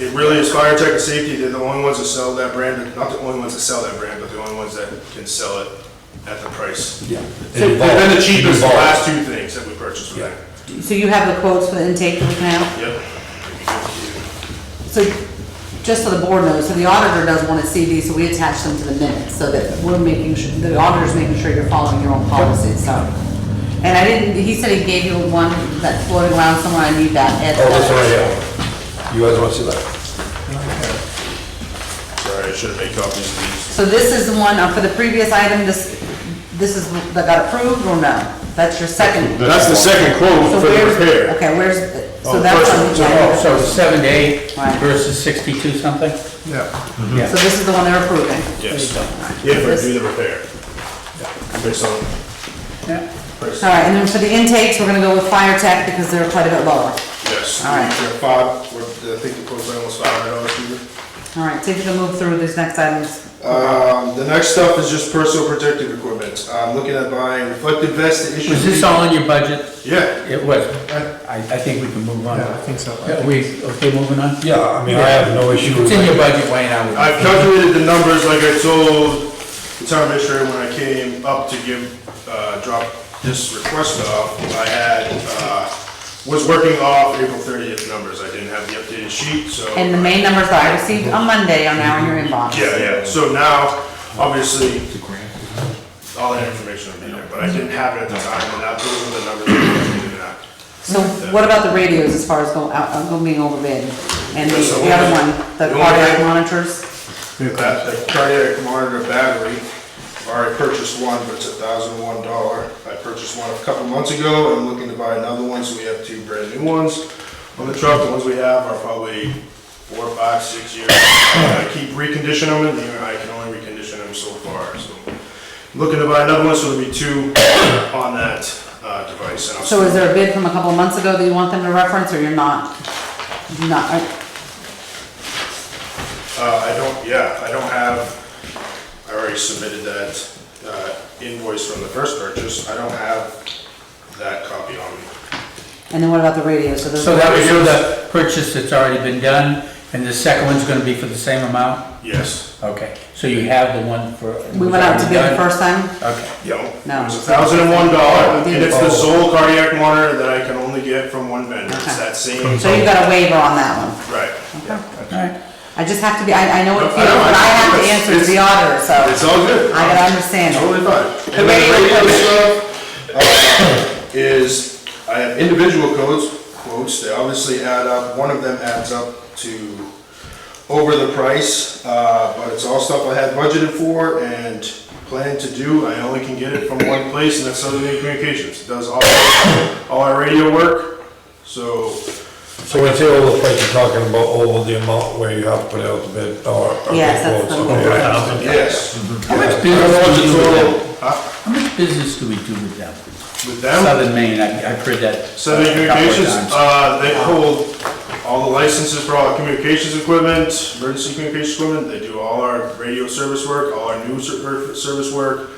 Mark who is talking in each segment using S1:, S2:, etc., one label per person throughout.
S1: It really is fire tech and safety, they're the only ones that sell that brand, not the only ones that sell that brand, but the only ones that can sell it at the price.
S2: Yeah.
S1: They've been the cheapest, the last two things that we purchased with
S2: Yeah.
S1: them.
S3: So you have the quotes for the intake that we can have?
S1: Yep.
S3: So, just so the board knows, so the auditor does want to see these, so we attach them to the minutes, so that we're making sure, the auditor's making sure you're following your own policies, so. And I didn't, he said he gave you one that's floating around somewhere, I need that, Ed.
S2: Oh, this one right here. You guys want to see that?
S1: Sorry, I should have made copies of these.
S3: So this is the one, uh, for the previous item, this, this is, that got approved or no? That's your second.
S1: That's the second quote
S3: So
S1: for the
S3: where's-
S1: repair.
S3: Okay, where's, so
S1: Oh,
S3: that's
S1: first
S3: on the
S4: Oh, so seven to eight
S3: Right.
S4: versus sixty-two something?
S2: Yeah.
S3: So this is the one they're approving?
S1: Yes. If we do the repair. Based on
S4: Yeah.
S1: price.
S3: All right, and then for the intakes, we're gonna go with fire tech because they're quite a bit lower.
S1: Yes.
S3: All right.
S1: They're Five, we're- I think the quote's almost five hundred dollars cheaper.
S3: All right, so if you can move through these next items.
S1: Um, the next stuff is just personal protective equipment. I'm looking at buying reflective vests to issue.
S4: Was this all in your budget?
S1: Yeah.
S4: It was.
S1: I-
S4: I, I think we can move on.
S5: Yeah, I think so.
S4: Are we, okay, moving on?
S2: Yeah, I mean, I have no issue with
S4: It's in your
S2: that.
S4: budget, Wayne, I would.
S1: I've calculated the numbers like I told the town administrator when I came up to give, uh, drop this request off. I had, uh, was working off April thirtieth numbers. I didn't have the updated sheet, so.
S3: And the main numbers that I received on Monday are now in your inbox.
S1: Yeah, yeah, so now, obviously, all that information will be there, but I didn't have it at the time, and that, those were the numbers. that I needed to act.
S3: So what about the radios as far as go out, uh, go being overbid? And the
S1: That's the
S3: the other
S1: only-
S3: one, the
S1: the only
S3: cardiac
S1: thing-
S3: monitors?
S1: That, the cardiac monitor battery, already purchased one, but it's a thousand one dollar. I purchased one a couple months ago, I'm looking to buy another one, so we have two brand new ones. On the truck, the ones we have are probably four, five, six years. I keep reconditioning them, and I can only recondition them so far, so. Looking to buy another one, so there'll be two on that, uh, device. and I'll-
S3: So is there a bid from a couple of months ago that you want them to reference or you're not? You're Not, uh,
S1: Uh, I don't, yeah, I don't have, I already submitted that uh, invoice from the first purchase. I don't have that copy on me.
S3: and then what about the radios? those
S4: So
S3: are-
S4: that was for the purchase that's already been done, and the second one's gonna be for the same amount?
S1: Yes.
S4: Okay, so you have the one for.
S3: We went out to bid the
S4: already
S3: first time?
S4: done? Okay.
S1: Yeah.
S3: No.
S1: It was a thousand and one dollar, and it's the sole cardiac monitor that I can only get from one vendor. It's that same.
S3: So you got a waiver on that one?
S1: Right.
S4: All right,
S3: I just have to be, I, I know it
S1: No, I
S3: feels,
S1: know,
S3: but I have to
S1: it's-
S3: answer to the auditor, so.
S1: It's all good.
S3: I gotta understand it.
S1: Totally fine. And then the radio stuff uh, is, I have individual codes, quotes, they obviously add up, one of them adds up to over the price, uh, but it's all stuff I had budgeted for and planned to do, I only can get it from one place, and that's Southern Maine Communications, it does all, all our radio work, so,
S2: So when you say over the price, you're talking about over the amount where you have to put out the bid or. or
S3: Yes, that's
S2: quotes,
S3: the-
S2: okay, I understand.
S1: yes.
S4: how much
S2: I don't know
S4: business
S2: what
S4: do you
S2: the total-
S4: do with them? How much business do we do with them?
S1: With them,
S4: Southern Maine, I- I've heard that.
S1: Southern
S4: a couple of
S1: Communications,
S4: times.
S1: uh, they hold all the licenses for all our communications equipment, emergency communications equipment, they do all our radio service work, all our news ser- er, service work,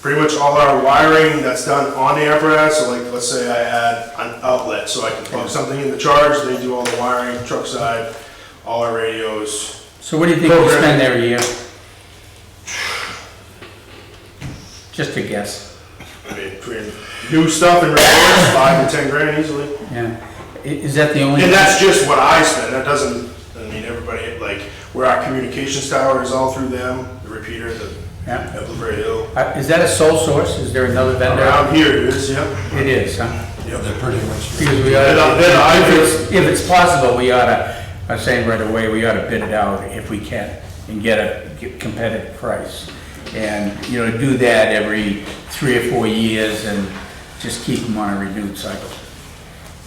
S1: pretty much all our wiring that's done on the apparatus, so like, let's say I had an outlet, so I can plug something in the charge, they do all the wiring, truck side, all our radios,
S4: So what do you think we
S1: Program.
S4: spend every year? Just a guess,
S1: I mean, between new stuff and repairs, five to ten grand easily.
S4: yeah. I- Is that the only?
S1: And that's just what I spend, that doesn't, I mean, everybody, like, where our communications tower is all through them, the repeater, the,
S4: Yeah.
S1: at Blueberry Hill.
S4: Uh, Is that a sole source? Is there another vendor?
S1: Around here it is, yeah.
S4: It is, huh?
S2: Yeah, they're pretty much.
S4: Because we
S1: Then I-
S4: ought
S1: then I
S4: if
S1: would-
S4: it's, if it's possible, we ought to, I'm saying right away, we ought to bid it out if we can and get a get competitive price. And, you know, do that every three or four years and just keep them on a renewed cycle.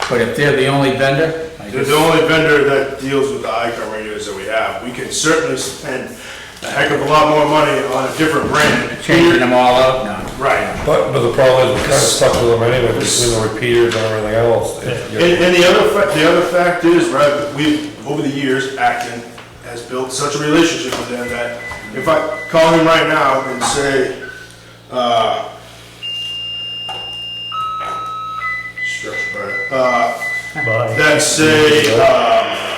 S4: But if they're the only vendor, I
S1: They're the
S4: guess,
S1: only vendor that deals with the Icon radios that we have. We can certainly spend a heck of a lot more money on a different brand.
S4: changing them all out, no.
S1: Right.
S2: But, but the problem is, we're kind of stuck with them anyway, between the repeaters and everything else. If
S1: And,
S2: you're-
S1: and the other, fa- the other fact is, right, we, over the years, Acton has built such a relationship with them that if I call him right now and say, uh, structure, uh, that say, um,